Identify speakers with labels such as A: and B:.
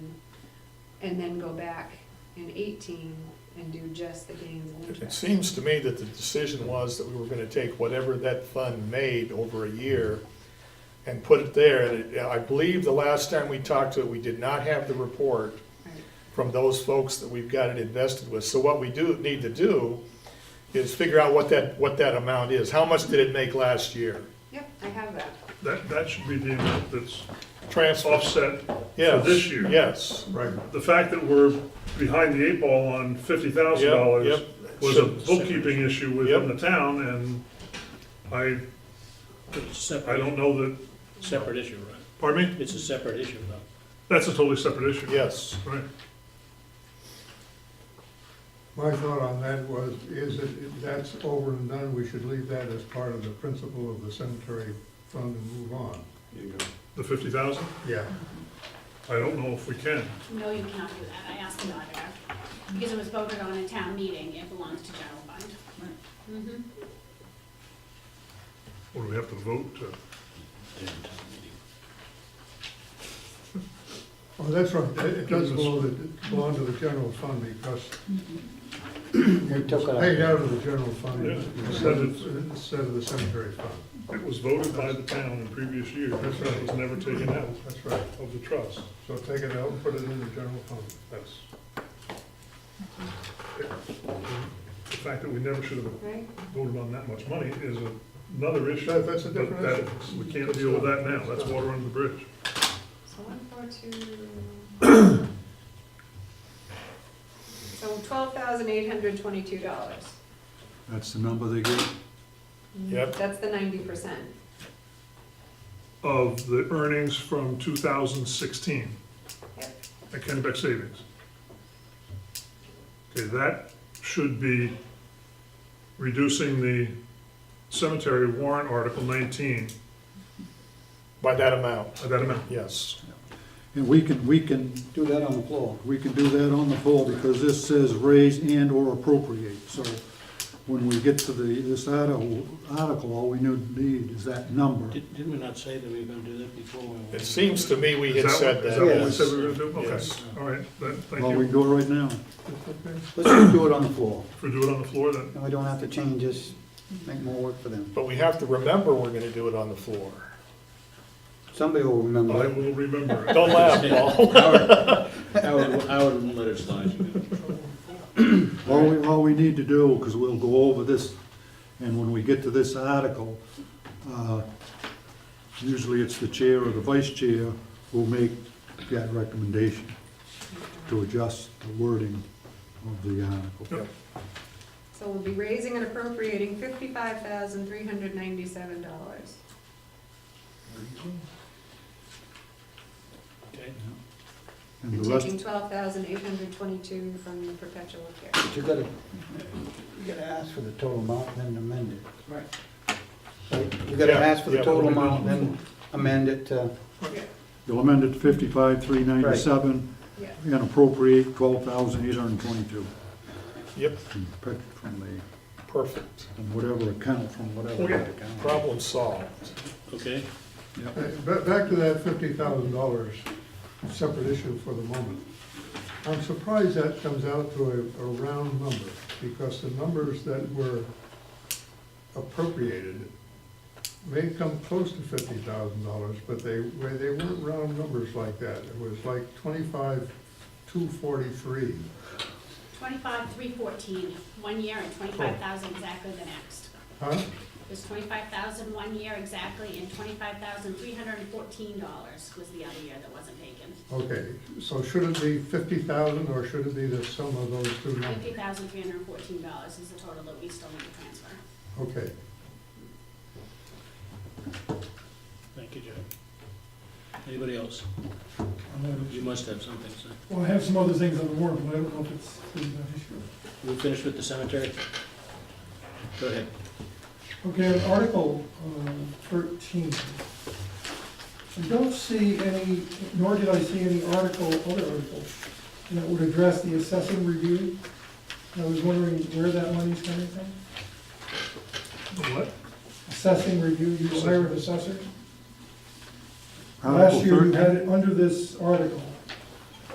A: and then go back in eighteen and do just the gains and
B: It
A: interest.
B: seems to me that the decision was that we were gonna take whatever that fund made over a year and put it there, and it- I believe the last time we talked to it, we did not have the report
A: Right.
B: from those folks that we've got it invested with, so what we do, need to do is figure out what that, what that amount is, how much did it make last year?
A: Yep, I have that.
C: That, that should be the amount that's
B: Transfer,
C: offset for
B: yes.
C: this year.
B: Yes,
C: Right. The fact that we're behind the eight ball on fifty thousand
B: Yep,
C: dollars
B: yep.
C: was a bookkeeping issue within the
B: Yep.
C: town, and I,
D: It's a
C: I
D: separate,
C: don't know that,
D: separate issue, right?
C: pardon me?
D: It's a separate issue, though.
C: That's a totally separate issue.
B: yes.
C: Right.
E: My thought on that was, is that if that's over and done, we should leave that as part of the principle of the cemetery fund and move on.
C: The fifty thousand,
E: Yeah.
C: I don't know if we can.
F: No, you cannot do that, I asked the auditor, because it was voted on in town meeting, it belongs to general fund. Mhm.
C: Or do we have to vote to?
E: Oh, that's right, it it does belong, it belong to the general fund because
G: We took it out.
E: paid out of the general fund
C: Yeah.
E: instead of, instead of the cemetery fund.
C: It was voted by the town in previous years,
E: That's right.
C: it was never taken out
E: That's right,
C: of the trust.
E: so take it out and put it in the general fund.
C: That's. The fact that we never should have
A: Right?
C: voted on that much money is another issue.
E: That- that's a
C: but
E: different
C: that-
E: issue.
C: We can't deal with that now, that's water under the bridge.
A: So one, four, two. So twelve thousand eight hundred twenty-two dollars.
H: That's the number they give?
B: Yep.
A: That's the ninety percent.
C: Of the earnings from two thousand sixteen
A: Yep.
C: at Kennebec Savings. Okay, that should be reducing the cemetery warrant article nineteen
B: By that amount,
C: by that amount.
B: yes.
H: And we can, we can do that on the floor. We can do that on the floor because this says raise and/or appropriate. So when we get to the, this article, article, all we need need is that number.
D: Did- Didn't we not say that we were gonna do that before?
B: It seems to me we
C: Is
B: had
C: that
B: said
C: what- Is that what we
B: that.
C: said we were gonna do? Okay,
B: Yes.
C: all right, then, thank
H: Well, we can
C: you.
H: do it right now.
E: Okay.
H: Let's just do it on the floor.
C: For doing it on the floor then.
H: And we don't have to change this, make more work for them.
B: But we have to remember we're gonna do it on the floor.
H: Somebody will
C: I
H: remember.
C: will remember. it.
B: Don't laugh, Paul.
D: I would, I would let it slide, you know.
H: All we, all we need to do, because we'll go over this, and when we get to this article, uh, usually it's the chair or the vice chair will make that recommendation to adjust the wording of the article.
A: So we'll be raising and appropriating fifty-five thousand three hundred ninety-seven dollars.
D: Okay.
H: And
A: And
H: the rest,
A: taking twelve thousand eight hundred twenty-two from the perpetual care.
G: But you gotta, you gotta ask for the total amount and then amend it.
D: Right.
G: Right? You gotta
B: Yeah,
G: ask for the
B: yeah.
G: total amount and then amend it to,
H: you'll amend it to fifty-five, three ninety-seven,
A: Yeah,
H: and appropriate twelve thousand eight hundred and twenty-two.
B: Yep,
H: From the, from
B: perfect.
H: whatever account, from whatever
C: Okay.
H: account.
B: Oh, Problem solved.
D: Okay,
H: Yep.
E: Hey, ba- Back to that fifty thousand dollars, separate issue for the moment. I'm surprised that comes out to a, a round number, because the numbers that were appropriated may come close to fifty thousand dollars, but they, well, they weren't round numbers like that. It was like twenty-five, two forty-three.
F: Twenty-five, three fourteen, one year and twenty-five thousand exactly the next.
E: Huh?
F: It was twenty-five thousand one year exactly, and twenty-five thousand three hundred and fourteen dollars was the other year that wasn't taken.
E: Okay, so should it be fifty thousand, or should it be the sum of those two numbers?
F: Fifty thousand three hundred and fourteen dollars is the total that we still need to transfer.
E: Okay.
D: thank you, Joe. Anybody else? You must have something, so.
I: Well, I have some other things on the warrant, but I don't know if it's really an issue.
D: We finished with the cemetery? Go ahead.
I: Okay, on Article uh, 13. I don't see any, nor did I see any article, other article, that would address the assessing review. I was wondering where that money's coming from?
C: What?
I: Assessing review, you hire an assessor?
H: Article
I: Last year, you
H: 13.
I: had it under this article.